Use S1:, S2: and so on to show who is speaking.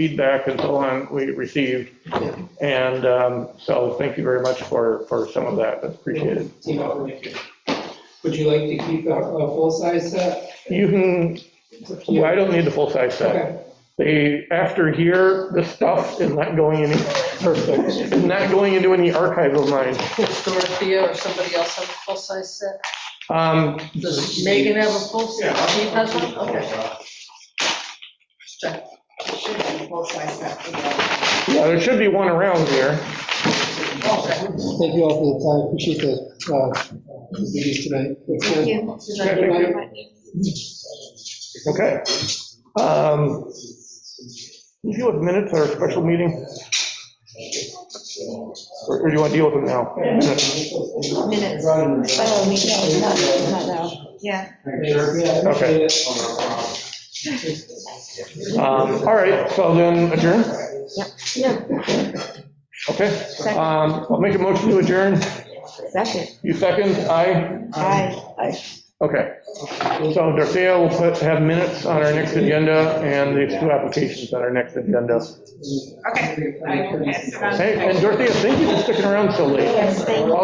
S1: feedback and so on we received. And um, so thank you very much for, for some of that, that's appreciated.
S2: Team operation. Would you like to keep a, a full-size set?
S1: You can, well, I don't need the full-size set.
S2: Okay,
S1: They, after here, the stuff is not going any,
S2: perfect.
S1: is not going into any archive of mine.
S3: Dorothea or somebody else have a full-size set?
S1: Um,
S3: Does Megan have a full set? She has one? Okay. Check.
S4: Should be full-size set for the-
S1: Yeah, there should be one around here.
S2: Thank you all for the time, appreciate the, uh, the meetings tonight.
S4: Thank you.
S1: Yeah, thank you. Okay. Um, You deal with minutes or a special meeting? Or or do you want to deal with them now? Minutes.
S4: Minutes. Oh, we can, not, not now. Yeah.
S1: Okay. Um, All right, so then adjourn?
S4: Yeah.
S1: Okay.
S4: Second.
S1: Um, I'll make a motion to adjourn.
S4: Second.
S1: You second? Aye?
S4: Aye. Aye.
S1: Okay. So Dorothea will put, have minutes on our next agenda and these two applications on our next agenda.
S4: Okay.
S1: Hey, and Dorothea, thank you for sticking around so late.
S4: Yes, thank you.